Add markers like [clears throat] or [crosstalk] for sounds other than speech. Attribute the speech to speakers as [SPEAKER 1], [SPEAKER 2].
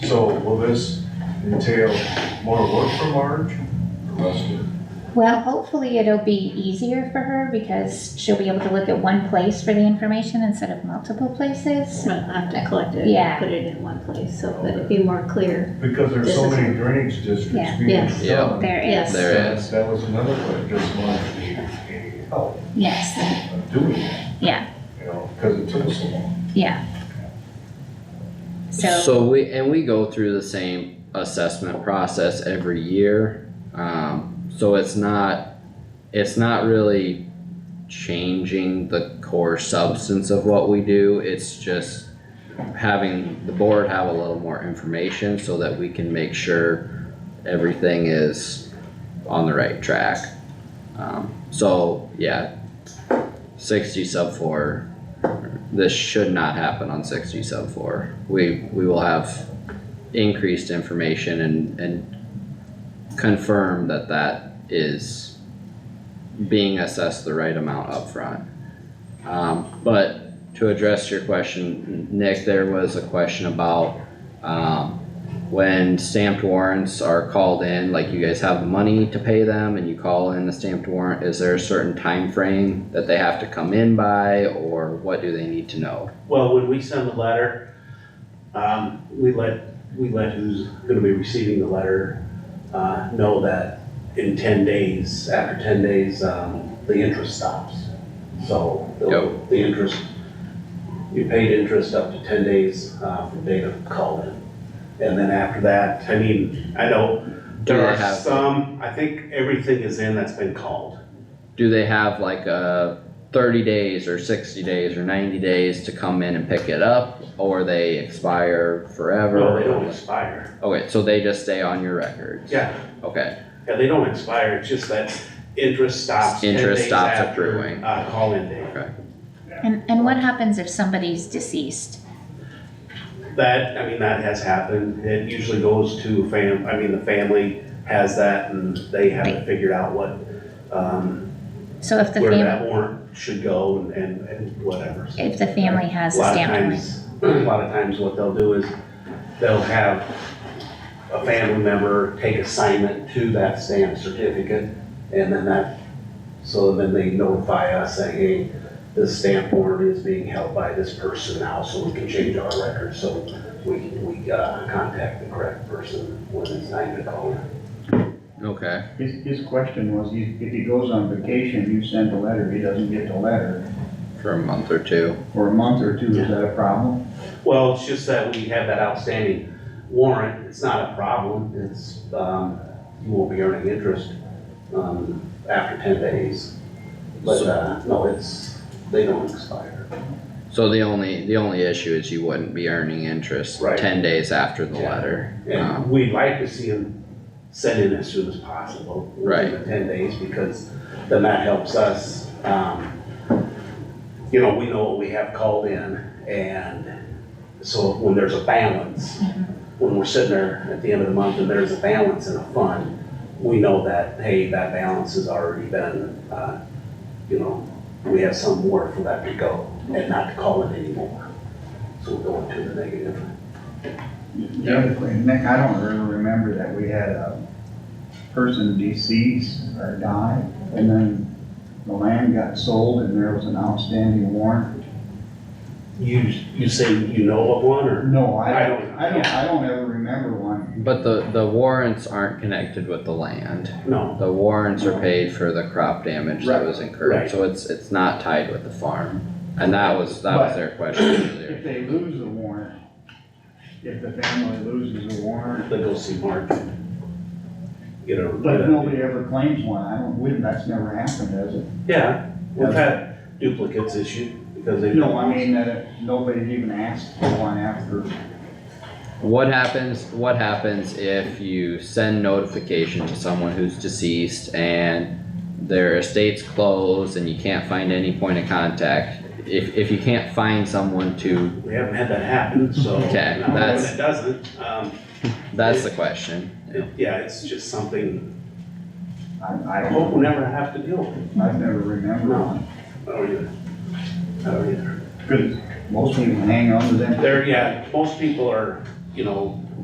[SPEAKER 1] So will this entail more work for Marge or less work?
[SPEAKER 2] Well, hopefully it'll be easier for her because she'll be able to look at one place for the information instead of multiple places.
[SPEAKER 3] Well, I have to collect it
[SPEAKER 2] Yeah.
[SPEAKER 3] and put it in one place, so that it'd be more clear.
[SPEAKER 1] Because there's so
[SPEAKER 3] This is-
[SPEAKER 1] many drainage districts
[SPEAKER 2] Yeah.
[SPEAKER 1] being
[SPEAKER 3] Yes.
[SPEAKER 1] done.
[SPEAKER 2] There
[SPEAKER 3] Yes.
[SPEAKER 2] is,
[SPEAKER 4] There-
[SPEAKER 1] That- That was another thing, just wanted to get help
[SPEAKER 2] yes,
[SPEAKER 1] of doing it,
[SPEAKER 2] yeah,
[SPEAKER 1] you know, because it took so long.
[SPEAKER 2] yeah. So,
[SPEAKER 4] So we, and we go through the same assessment process every year, um, so it's not, it's not really changing the core substance of what we do, it's just having the board have a little more information so that we can make sure everything is on the right track. Um, so, yeah, sixty sub four this should not happen on sixty sub four. We, we will have increased information and, and confirm that that is being assessed the right amount upfront. Um, but to address your question, Nick, there was a question about, um, when stamped warrants are called in, like you guys have the money to pay them and you call in the stamped warrant, is there a certain time frame that they have to come in by or what do they need to know?
[SPEAKER 5] Well, when we send the letter, um, we let, we let who's gonna be receiving the letter, uh, know that in ten days, after ten days, um, the interest stops. So, the,
[SPEAKER 4] Yep.
[SPEAKER 5] the interest, you paid interest up to ten days, uh, from date of call in. And then after that, I mean, I know,
[SPEAKER 4] Do
[SPEAKER 5] there
[SPEAKER 4] they
[SPEAKER 5] are
[SPEAKER 4] have,
[SPEAKER 5] some, I think everything is in that's been called.
[SPEAKER 4] do they have like a thirty days or sixty days or ninety days to come in and pick it up? Or they expire forever?
[SPEAKER 5] No, they don't expire.
[SPEAKER 4] Okay, so they just stay on your records?
[SPEAKER 5] Yeah,
[SPEAKER 4] Okay,
[SPEAKER 5] Yeah, they don't expire, it's just that interest stops ten
[SPEAKER 4] Interest
[SPEAKER 5] days
[SPEAKER 4] stops
[SPEAKER 5] after,
[SPEAKER 4] accruing.
[SPEAKER 5] uh, call-in date.
[SPEAKER 2] and, and what happens if somebody's deceased?
[SPEAKER 5] That, I mean, that has happened, it usually goes to fam, I mean, the family has that and they haven't figured out what, um,
[SPEAKER 2] So if the
[SPEAKER 5] where
[SPEAKER 2] fam,
[SPEAKER 5] that warrant should go and, and, and whatever. So
[SPEAKER 2] if the family has a
[SPEAKER 5] lot of
[SPEAKER 2] stamped warrant,
[SPEAKER 5] times- [clears throat] A lot of times what they'll do is they'll have a family member take assignment to that stamp certificate and then that, so then they notify us saying, hey, this stamp warrant is being held by this person now, so we can change our records, so we, we, uh, contact the correct person when it's time to call.
[SPEAKER 4] okay,
[SPEAKER 6] His, his question was, you- if he goes on vacation, you send a letter, he doesn't get the letter,
[SPEAKER 4] for a month or two.
[SPEAKER 6] for a month or two, is that a problem?
[SPEAKER 5] Well, it's just that we have that outstanding warrant, it's not a problem, it's, um, you won't be earning interest, um, after ten days. But, uh, no, it's, they don't expire.
[SPEAKER 4] So the only, the only issue is you wouldn't be earning interest
[SPEAKER 5] Right.
[SPEAKER 4] ten days after the
[SPEAKER 5] Yeah.
[SPEAKER 4] letter. Um,
[SPEAKER 5] And we'd like to see them sent in as soon as possible.
[SPEAKER 4] Right.
[SPEAKER 5] within the Ten days, because then that helps us, um, you know, we know what we have called in, and so when there's a balance, when we're sitting there at the end of the month and there's a balance in a fund, we know that, hey, that balance has already been, uh, you know, we have some more for that to go, and not to call it anymore. So we're going to the negative.
[SPEAKER 6] The other thing, Nick, I don't really remember that we had a person deceased or died, and then the land got sold and there was an outstanding warrant.
[SPEAKER 5] You, you say you know of one, or?
[SPEAKER 6] No, I,
[SPEAKER 5] I
[SPEAKER 6] I
[SPEAKER 5] don't-
[SPEAKER 6] don't, I don't ever remember one.
[SPEAKER 4] But the, the warrants aren't connected with the land.
[SPEAKER 5] No.
[SPEAKER 4] The warrants are paid for the crop damage that was incurred,
[SPEAKER 5] Right.
[SPEAKER 4] so it's, it's not tied with the farm. And that was, that was their question earlier.
[SPEAKER 6] If they lose the warrant, if the family loses the warrant,
[SPEAKER 5] Then go see Mark. Get a.
[SPEAKER 6] but nobody ever claims one, I don't, we- that's never happened, has it?
[SPEAKER 5] Yeah, we've had duplicates issued because they.
[SPEAKER 6] No, I mean, that nobody's even asked for one after.
[SPEAKER 4] What happens, what happens if you send notification to someone who's deceased and their estate's closed and you can't find any point of contact? If, if you can't find someone to,
[SPEAKER 5] We haven't had that happen, so.
[SPEAKER 4] Okay,
[SPEAKER 5] Now, when
[SPEAKER 4] that's-
[SPEAKER 5] It doesn't, um,
[SPEAKER 4] that's the question.
[SPEAKER 5] it- yeah, it's just something
[SPEAKER 6] I, I
[SPEAKER 5] I hope
[SPEAKER 6] don't,
[SPEAKER 5] we never have to deal with.
[SPEAKER 6] I've never remembered one.
[SPEAKER 5] I don't either. I don't either.
[SPEAKER 6] Cause most people hang on to them.
[SPEAKER 5] There, yeah, most people are, you know,